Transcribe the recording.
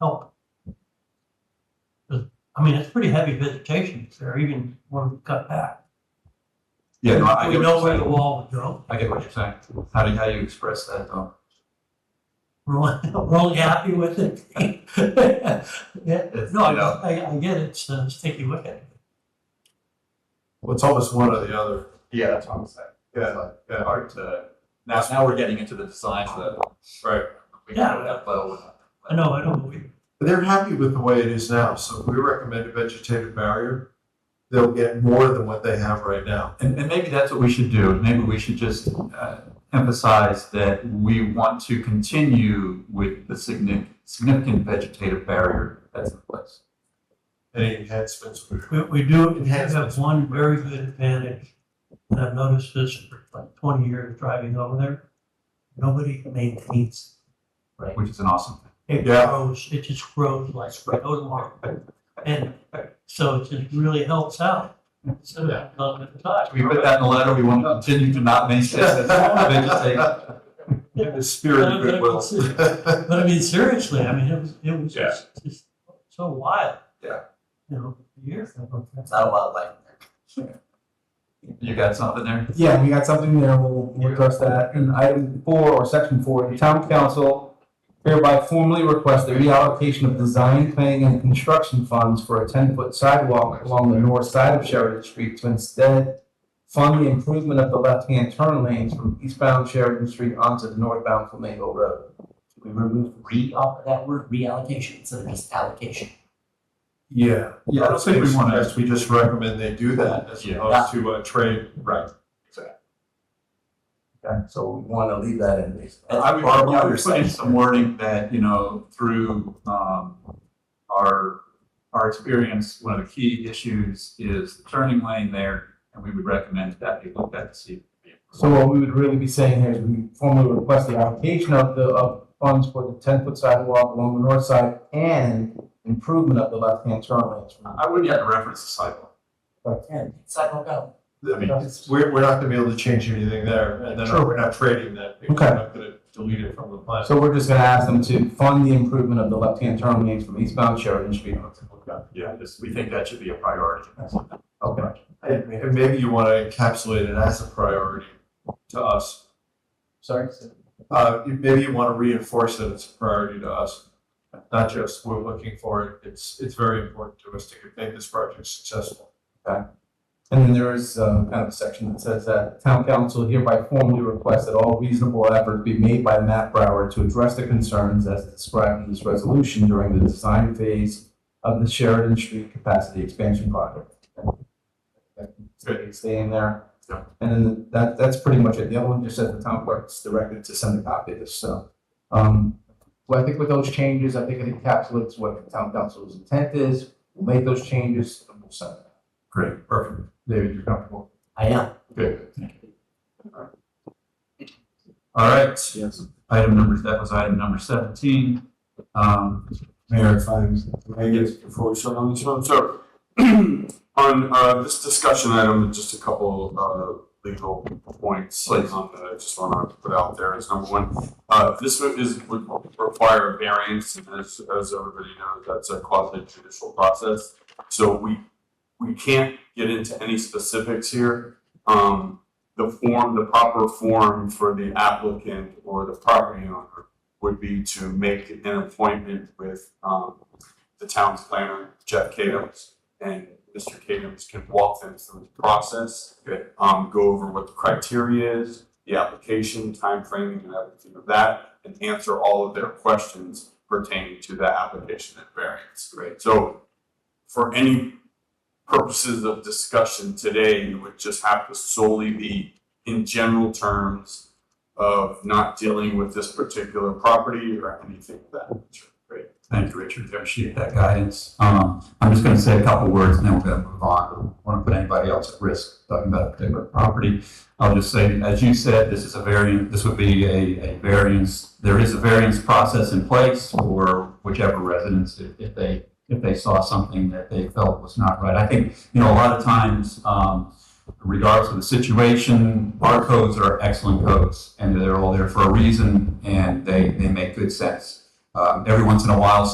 help. 'Cause, I mean, it's pretty heavy vegetation there, even when we cut back. Yeah, no, I We get know what where you're the saying. wall would go. I get what you're saying. How do, how do you express that though? We're only, we're only happy with it. Yeah, no, you know. I, I- I get it, it's a sticky wicket. Well, it's almost one or the other. Yeah, that's what I'm saying. Yeah, yeah. Hard to, now, now we're getting into the designs that. Right. We know that level. I know, I know, we- They're happy with the way it is now, so if we recommend a vegetative barrier, they'll get more than what they have right now. And, and maybe that's what we should do. Maybe we should just uh, emphasize that we want to continue with the significant, significant vegetative barrier that's in place. Any enhancements? we- we, we do Enhance have one very good advantage. And I've noticed this for like twenty years driving over there. Nobody maintains Which is an awesome thing. It Yeah. grows, it just grows like no tomorrow. And so it just really helps out. So Yeah. that's not at the time. We put that in the letter. We want to continue to not maintain this vegetative. In the spirit of goodwill. But I mean, seriously, I mean, it was, it was Yeah. just, just so wild. Yeah. You know, years ago. It's not wildlife. You got something there? Yeah, we got something there, we'll, we'll address that. And item four, or section four, the town council hereby formally requests the reallocation of design, planning, and construction funds for a ten-foot sidewalk along the north side of Sheridan Street to instead fund the improvement of the left-hand turn lanes from eastbound Sheridan Street onto the northbound Flamingo Road. We remove re off of that word reallocation instead of just allocation. Yeah. Yeah, I don't think we wanna- Yes, We just recommend they do that as Yeah. opposed to uh, trade. Right. Okay, so we wanna leave that in there. I would, Barb, yeah, I what would put in some wording that, you know, through, um, our, our experience, one of the key issues is the turning lane there, and we would recommend that you look at to see. So what we would really be saying here is we formally request the allocation of the, of funds for the ten-foot sidewalk along the north side and improvement of the left-hand turn lanes. I wouldn't have to reference the sidewalk. And sidewalk out. I mean, it's- we're, we're not gonna be able to change anything there, and then Sure. we're not trading that. because Okay. We're not gonna delete it from the plan. So we're just gonna ask them to fund the improvement of the left-hand turn lanes from eastbound Sheridan Street. Yeah, just, we think that should be a priority. Okay. And and maybe you wanna encapsulate it as a priority to us. Sorry? Uh, you- maybe you want to reinforce that it's a priority to us, not just we're looking for it. It's, it's very important to us to make this project successful. And then there is, um, kind of a section that says that town council hereby formally requests that all reasonable efforts be made by Matt Brower to address the concerns as described in this resolution during the design phase of the Sheridan Street capacity expansion project. Good. Stay in there. Yeah. And then that, that's pretty much it. The other one just said the town clerk's directed to send a copy of this, so. Um, well, I think with those changes, I think it encapsulates what the town council's intent is. We'll make those changes and we'll send it. Great, perfect. David, you're comfortable? I am. All right. Yes. Item number, that was item number seventeen. Um, Mayor, if I may get before we start on this one, so on uh, this discussion item, just a couple uh, legal points like on that I just want to put out there is number one, uh, this would- is would require a variance, and as as everybody knows, that's a quasi judicial process. So we we can't get into any specifics here. Um, the form, the proper form for the applicant or the property owner would be to make an appointment with um the town's planner, Jeff Kadams. And Mr. Kadams can walk them through the process. Good. Um, go over what the criteria is, the application, timeframe, and everything of that, and answer all of their questions pertaining to the application and variance. Great. So for any purposes of discussion today, it would just have to solely be in general terms of not dealing with this particular property or anything of that nature. Great. Thank you, Richard. I Appreciate that guidance. Um, I'm just gonna say a couple words and then we're gonna move on. I don't Want to put anybody else at risk talking about a particular property. I'll just say, as you said, this is a variant, this would be a, a variance. There is a variance process in place for whichever residents, if, if they, if they saw something that they felt was not right. I think, you know, a lot of times, um, regardless of the situation, barcodes are excellent codes and they're all there for a reason and they, they make good sense. Um, every once in a while,